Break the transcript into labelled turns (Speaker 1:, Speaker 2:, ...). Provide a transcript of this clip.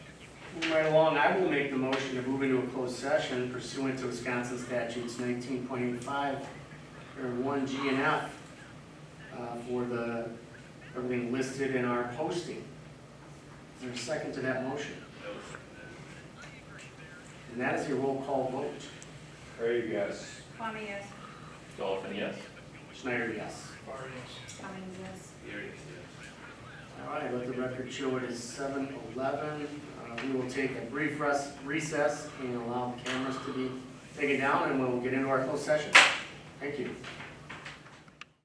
Speaker 1: Moving right along, I will make the motion to move into a closed session pursuant to Wisconsin statutes nineteen point eight five, or one G and F, uh, for the, everything listed in our posting. Is there a second to that motion? And that is your roll call vote.
Speaker 2: Craig, yes.
Speaker 3: Kwame, yes.
Speaker 4: Dolphin, yes.
Speaker 1: Schneider, yes.
Speaker 3: Cummings, yes.
Speaker 1: All right, let the record show it is seven eleven. Uh, We will take a brief res- recess and allow the cameras to be taken down, and we'll get into our closed session. Thank you.